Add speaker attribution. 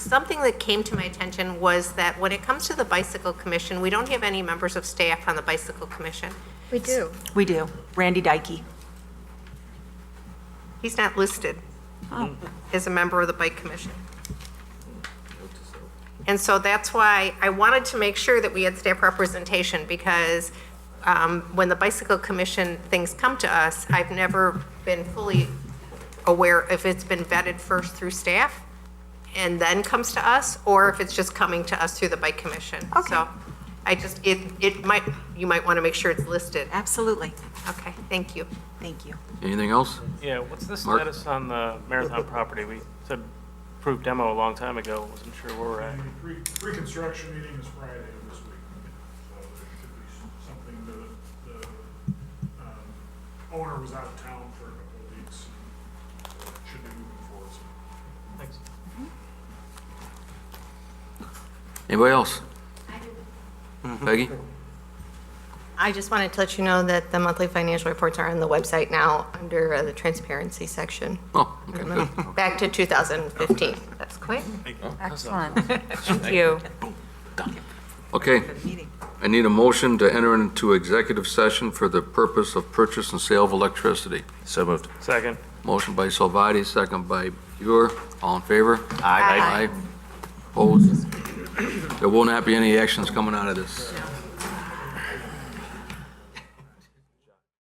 Speaker 1: Something that came to my attention was that when it comes to the Bicycle Commission, we don't have any members of staff on the Bicycle Commission.
Speaker 2: We do.
Speaker 3: We do. Randy Dykey.
Speaker 1: He's not listed Oh. as a member of the Bike Commission. And so that's why I wanted to make sure that we had staff representation, because um, when the Bicycle Commission things come to us, I've never been fully aware if it's been vetted first through staff and then comes to us, or if it's just coming to us through the Bike Commission.
Speaker 3: Okay.
Speaker 1: So I just, it, it might, you might want to make sure it's listed.
Speaker 3: Absolutely.
Speaker 1: Okay, thank you.
Speaker 3: Thank you.
Speaker 4: Anything else?
Speaker 5: Yeah, what's the
Speaker 4: Mark?
Speaker 5: status on the Marathon property? We said approved demo a long time ago, wasn't sure where we're at.
Speaker 6: Pre- Pre-construction meeting is Friday of this week, so there could be something, the, the um, owner was out of town for a couple of weeks, so it should be moving forward. soon.
Speaker 5: Thanks.
Speaker 4: Anybody else? Peggy?
Speaker 2: I just wanted to let you know that the monthly financial reports are on the website now under uh, the transparency section.
Speaker 4: Oh, okay, good.
Speaker 2: Back to 2015. That's quick.
Speaker 3: Excellent.
Speaker 2: Thank you.
Speaker 4: Okay,
Speaker 3: For the meeting.
Speaker 4: I need a motion to enter into executive session for the purpose of purchase and sale of electricity.
Speaker 7: So moved.
Speaker 5: Second.
Speaker 4: Motion by Salvati, second by Buer. All in favor?
Speaker 7: Aye.
Speaker 4: Aye. Opposed? There will not be any actions coming out of this.